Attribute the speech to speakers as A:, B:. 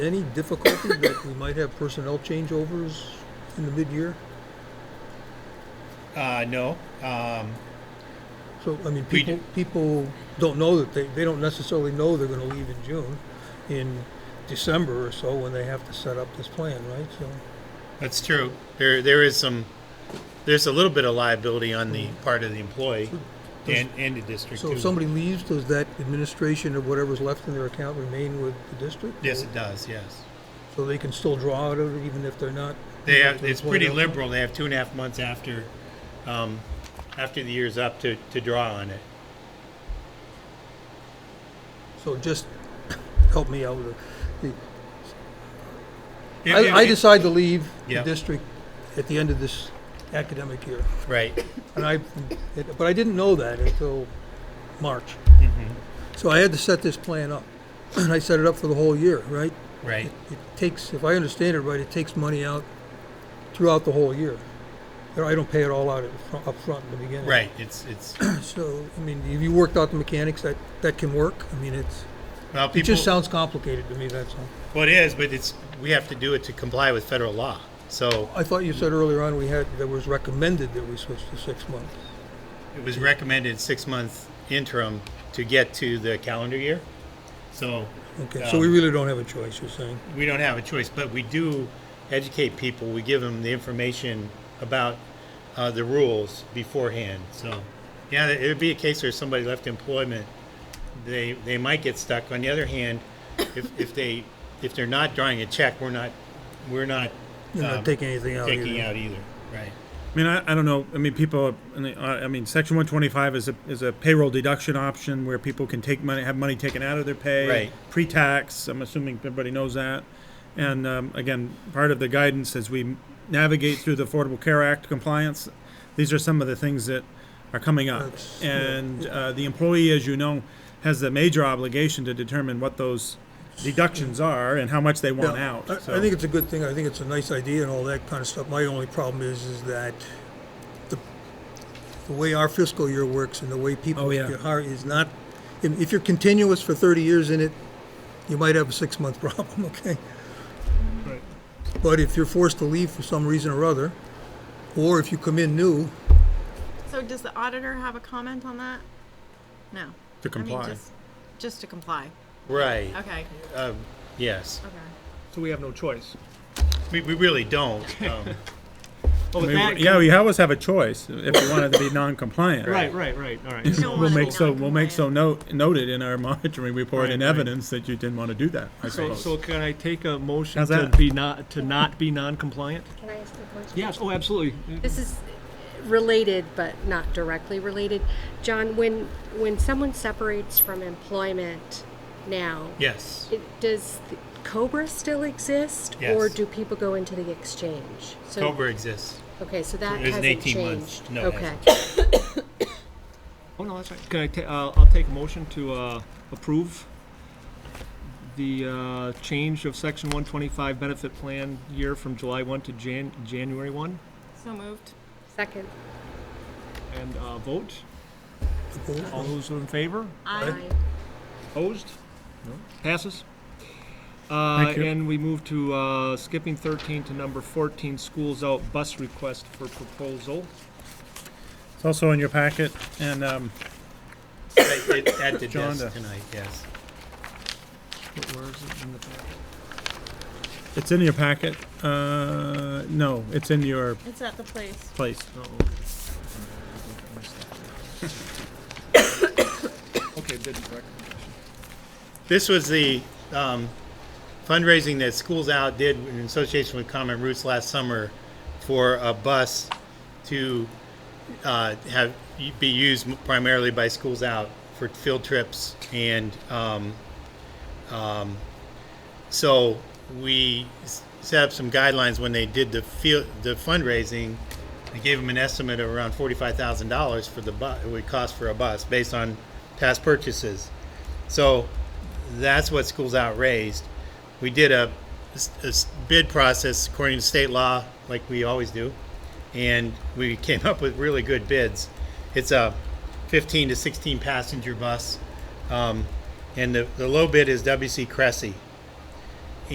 A: any difficulty that we might have personnel changeovers in the mid-year?
B: Uh, no, um,
A: So, I mean,
B: We
A: people, people don't know that they, they don't necessarily know they're gonna leave in June, in December or so, when they have to set up this plan, right? So,
B: that's true. There, there is some, there's a little bit of liability on the part of the employee and, and the district
A: so
B: too.
A: if somebody leaves, does that administration or whatever's left in their account remain with the district?
B: Yes, it does, yes.
A: So they can still draw out of it even if they're not?
B: They have,
A: to
B: it's
A: employ
B: pretty
A: them?
B: liberal. They have two and a half months after, um, after the year's up to, to draw on it.
A: So just help me out. with it.
B: It-
A: I,
B: it-
A: I
B: it-
A: decide to leave the
B: Yeah.
A: district at the end of this academic year.
B: Right,
A: And I, it- but I didn't know that until March.
B: Mm-hmm.
A: So I had to set this plan up. And I set it up for the whole year, right?
B: right.
A: It takes, if I understand it right, it takes money out throughout the whole year. You know, I don't pay it all out at fro- up front in the beginning.
B: Right, it's, it's,
A: So, I mean, if you worked out the mechanics, that, that can work. I mean, it's,
B: well,
A: it just
B: people,
A: sounds complicated to me, that's all.
B: well, it is, but it's, we have to do it to comply with federal law. So
A: I thought you said earlier on we had, that was recommended that we switch to six months.
B: it was recommended six-month interim to get to the calendar year. So
A: Okay, so we
B: Um,
A: really don't have a choice, you're saying?
B: we don't have a choice, but we do educate people. We give them the information about uh, the rules beforehand. So, yeah, it would be a case where somebody left employment, they they might get stuck. On the other hand, if, if they if they're not drawing a check, we're not we're not
A: You're not
B: um,
A: taking anything out
B: taking
A: either.
B: out either. Right.
C: I mean, I, I don't know. I mean, people. I mean, uh, I I mean, Section one twenty five is a is a payroll deduction option where people can take money, have money taken out of their pay,
B: Right.
C: pre tax. I'm assuming everybody knows that. And um, again, part of the guidance as we navigate through the Affordable Care Act compliance, these are some of the things that are coming up.
A: That's- yeah.
C: and uh, the employee, as you know, has the major obligation to determine what those deductions are and how much they want
A: Yeah,
C: out.
A: I, I think it's a good thing, I think it's a nice idea and all that kind of stuff. My only problem is, is that the, the way our fiscal year works and the way people
C: Oh, yeah.
A: get hired is not, if if you're continuous for thirty years in it, you might have a six-month problem, okay? But if you're forced to leave for some reason or other, or if you come in new,
D: So does the auditor have a comment on that? No.
C: to
D: I mean, just, just to comply.
B: Right.
D: Okay,
B: Um, yes.
D: okay.
E: So we have no choice.
B: We, we really don't. Um,
E: Well,
C: I
E: with
C: mean,
E: that,
C: yeah,
E: Oh, can-
C: we always have a choice if we wanted to be non-compliant.
E: Right, right, right, all right.
D: You don't
C: We'll
D: wanna be
C: make so we'll make so
D: non-compliant.
C: note noted in our monitoring report
E: Right,
C: and
E: right.
C: evidence that you didn't want to do that. I
E: So,
C: suppose.
E: so can I take a motion
C: How's
E: to
C: that?
E: be not, to not be non-compliant?
F: Can I ask a question?
E: Yes, oh, absolutely.
F: This is related, but not directly related. John, when, when someone separates from employment now,
B: yes.
F: it, does the COBRA still exist? Or
B: Yes.
F: do people go into the exchange? So-
B: Cobra exists.
F: Okay, so that
B: It isn't
F: hasn't
B: 18 months.
F: changed.
B: No, it
F: Okay.
B: hasn't.
E: Oh, no, that's right. Can I ta, uh, I'll take a motion to, uh, approve the, uh, change of section one twenty-five benefit plan year from July one to Jan, January one,
D: So moved.
F: Second.
E: and, uh, vote.
A: opposed,
E: All those in favor?
D: I,
E: Opposed? Passes. Uh,
C: Thank you.
E: And we move to uh, skipping 13 to number 14, schools out bus request for proposal.
C: it's also in your packet, and um,
B: Right, it- At the
C: Jonda.
B: desk
A: uh,
B: tonight, yes.
E: Where is it in the packet?
C: it's in your packet. Uh, no, it's in your
D: it's at the place.
C: place.
E: Oh, Okay, did recommendation.
B: This was the um, fundraising that Schools Out did in association with Common Roots last summer for a bus to uh, have be used primarily by Schools Out for field trips and um, um, so we s- set up some guidelines when they did the field the fundraising. They gave them an estimate of around forty-five thousand dollars for the bus. It would cost for a bus based on past purchases. So that's what Schools Out raised. We did a, a s- bid process according to state law, like we always do, and we came up with really good bids. It's a 15 to 16 passenger bus, um, and the, the low bid is WC Cressy